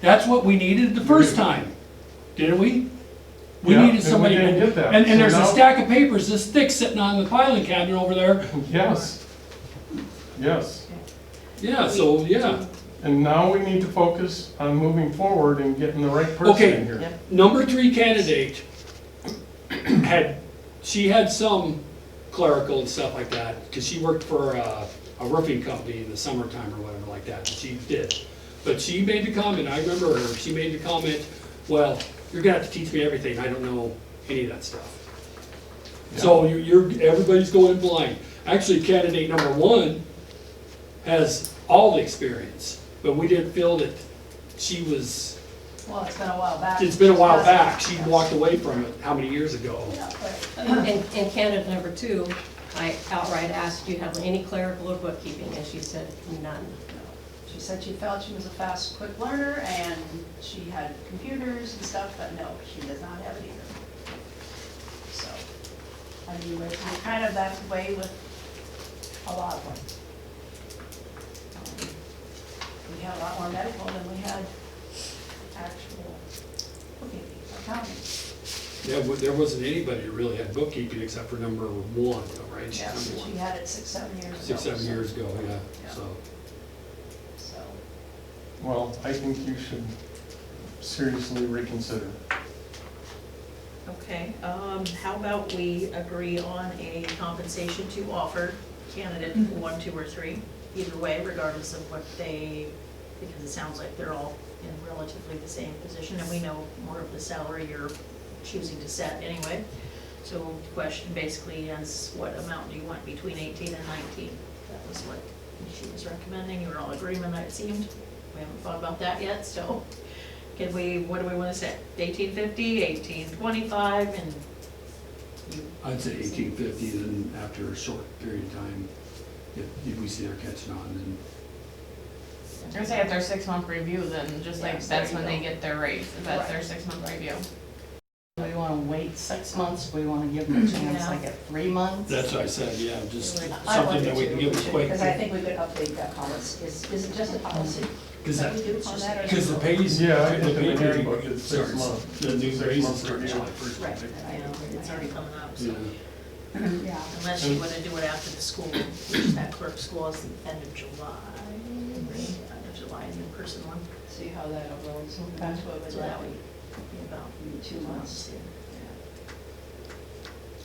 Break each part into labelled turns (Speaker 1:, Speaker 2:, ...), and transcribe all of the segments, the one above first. Speaker 1: That's what we needed the first time, didn't we? We needed
Speaker 2: Yeah, and we
Speaker 1: somebody.
Speaker 2: didn't get that.
Speaker 1: And, and
Speaker 2: So
Speaker 1: there's a
Speaker 2: now-
Speaker 1: stack of papers this thick sitting on the filing cabinet over there.
Speaker 2: Yes. Yes.
Speaker 1: Yeah, so, yeah.
Speaker 2: And now we need to focus on moving forward and getting the right person
Speaker 1: Okay.
Speaker 2: in here.
Speaker 3: Yep.
Speaker 1: Number three candidate had, she had some clerical and stuff like that, because she worked for uh, a roofing company in the summertime or whatever like that, she did. But she made the comment, I remember her, she made the comment, well, you're gonna have to teach me everything, I don't know any of that stuff. So you- you're, everybody's going blind. Actually, candidate number one has all the experience, but we didn't feel that she was
Speaker 4: Well, it's been a while back.
Speaker 1: it's been a while back, she walked away from it, how many years ago?
Speaker 4: Yeah, but-
Speaker 3: In, in candidate number two, I outright asked, do you have any clerical or bookkeeping? And she said, none.
Speaker 4: She said she felt she was a fast, quick learner and she had computers and stuff, but no, she does not have it either. So, I mean, we're we're kind of that way with a lot of them. Um, We had a lot more medical than we had actual, okay, accounting.
Speaker 1: Yeah, well, there wasn't anybody who really had bookkeeping except for number one, though, right? She's
Speaker 4: Yeah,
Speaker 1: number
Speaker 4: she
Speaker 1: one.
Speaker 4: had it six, seven years ago.
Speaker 1: Six, seven
Speaker 4: so-
Speaker 1: years ago, yeah, so.
Speaker 4: So,
Speaker 2: Well, I think you should seriously reconsider.
Speaker 5: Okay, um, how about we agree on a compensation to offer candidate one, two, or three? Either way, regardless of what they, because it sounds like they're all in relatively the same position, and we know more of the salary you're choosing to set anyway. So the question basically is, what amount do you want between eighteen and nineteen? That was what she was recommending, you were all in agreement, it seemed. We haven't thought about that yet, so. Can we, what do we wanna say, eighteen fifty, eighteen twenty-five, and you,
Speaker 1: I'd say eighteen fifty, then after a short period of time, if, if we see they're catching on, then.
Speaker 6: I would say at their six month review, then just
Speaker 5: Yeah,
Speaker 6: like,
Speaker 5: so
Speaker 6: that's
Speaker 5: you
Speaker 6: when they
Speaker 5: go.
Speaker 6: get their raise, if that's their
Speaker 5: Right.
Speaker 6: six month review.
Speaker 7: Do we wanna wait six months, do we wanna give them a chance
Speaker 5: Yeah.
Speaker 7: like at three months?
Speaker 1: That's what I said, yeah, just
Speaker 5: I wanted
Speaker 1: something that we can give a quick,
Speaker 4: because I think we could update that policy, is, is it just a policy?
Speaker 1: because
Speaker 4: that
Speaker 1: that,
Speaker 4: we do on that or-
Speaker 1: because the pays.
Speaker 2: Yeah, I
Speaker 1: the
Speaker 2: think in the
Speaker 1: pay
Speaker 2: handbook
Speaker 1: period
Speaker 2: it's six
Speaker 1: starts-
Speaker 2: months.
Speaker 1: The new
Speaker 2: Six
Speaker 1: raises
Speaker 2: months
Speaker 1: start
Speaker 2: review.
Speaker 1: July first.
Speaker 4: Right.
Speaker 5: you know, it's already coming up, so.
Speaker 1: Yeah,
Speaker 4: Yeah.
Speaker 5: Unless you wanna do it after the school, which that clerk school is the end of July, right? end of July, is the person one,
Speaker 4: See how that evolves, that's what was
Speaker 5: so that
Speaker 4: that,
Speaker 5: would be about
Speaker 4: in two
Speaker 5: two
Speaker 4: months.
Speaker 5: months.
Speaker 4: yeah.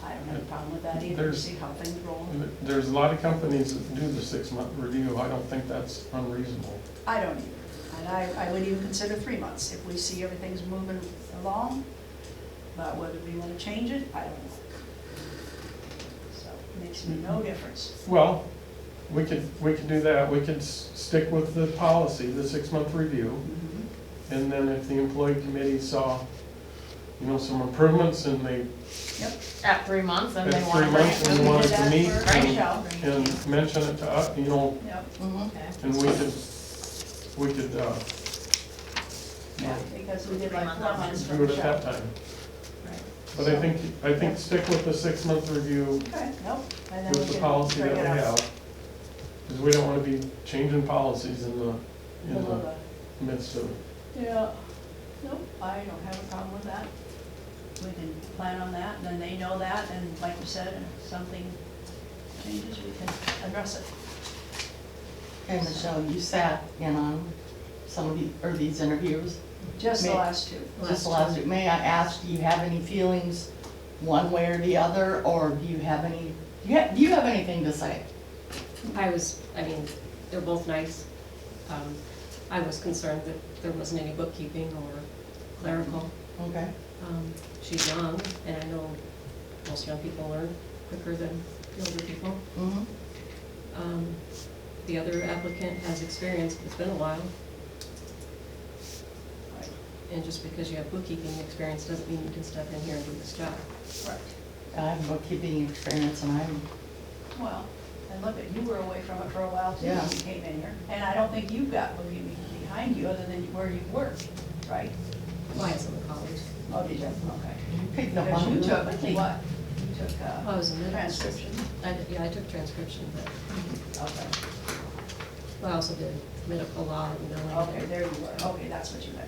Speaker 4: I don't have a problem with that either,
Speaker 2: There's-
Speaker 4: see how things roll.
Speaker 2: There's a lot of companies that do the six-month review. I don't think that's unreasonable.
Speaker 4: I don't either, and I, I would even consider three months if we see everything's moving along, but whether we wanna change it, I don't know. So, it makes me no difference.
Speaker 2: Well, we could, we could do that. We could s- stick with the policy, the six-month review.
Speaker 4: Mm-hmm.
Speaker 2: And then if the employee committee saw, you know, some improvements and they,
Speaker 6: At three months, then
Speaker 2: At
Speaker 6: they want
Speaker 2: three
Speaker 6: to
Speaker 2: months,
Speaker 6: raise.
Speaker 2: and we wanted to
Speaker 4: That's
Speaker 2: meet,
Speaker 4: where-
Speaker 2: um,
Speaker 4: Michelle,
Speaker 2: and mention it to us, you know,
Speaker 4: Yep,
Speaker 7: Mhm.
Speaker 5: Okay.
Speaker 2: and we could, we could, uh,
Speaker 4: yeah, because we did like four months for
Speaker 2: do it at that
Speaker 4: Michelle.
Speaker 2: time.
Speaker 5: Right.
Speaker 2: But I think, I think stick with the six-month review
Speaker 4: Okay, nope, and then we
Speaker 2: with the
Speaker 4: can
Speaker 2: policy that
Speaker 4: bring
Speaker 2: we
Speaker 4: it up.
Speaker 2: have. Because we don't want to be changing policies in the, in
Speaker 4: Middle of
Speaker 2: the
Speaker 4: the-
Speaker 2: midst of,
Speaker 4: Yeah, nope, I don't have a problem with that. We can plan on that, and then they know that, and like you said, if something changes, we can address it.
Speaker 7: Okay, Michelle, you sat in on some of the, or these interviews,
Speaker 4: Just the
Speaker 7: May-
Speaker 4: last two.
Speaker 7: just last week, may I ask, do you have any feelings one way or the other, or do you have any, do you have, do you have anything to say?
Speaker 3: I was, I mean, they're both nice. Um, I was concerned that there wasn't any bookkeeping or clerical.
Speaker 7: Okay,
Speaker 3: Um, She's young, and I know most young people learn quicker than older people.
Speaker 7: mm-hmm,
Speaker 3: Um, The other applicant has experience, but it's been a while.
Speaker 4: Right.
Speaker 3: And just because you have bookkeeping experience doesn't mean you can step in here and do this job.
Speaker 4: Right.
Speaker 7: I have bookkeeping experience and I'm,
Speaker 4: Well, and look, at you were away from it for a while too,
Speaker 7: Yeah.
Speaker 4: when you came in here. And I don't think you got what you need behind you, other than where you worked, right?
Speaker 3: Why is it in college?
Speaker 4: Oh, did you? Okay.
Speaker 7: you picked up
Speaker 4: Because
Speaker 7: on
Speaker 4: you
Speaker 7: it.
Speaker 4: took
Speaker 7: quickly.
Speaker 4: what? You took
Speaker 3: Oh, I
Speaker 4: uh,
Speaker 3: was in middle school.
Speaker 4: transcription?
Speaker 3: I did- Yeah, I took transcription, but
Speaker 4: Okay,
Speaker 3: I also did medical law and billing.
Speaker 4: okay, there you were. Okay, that's what you meant.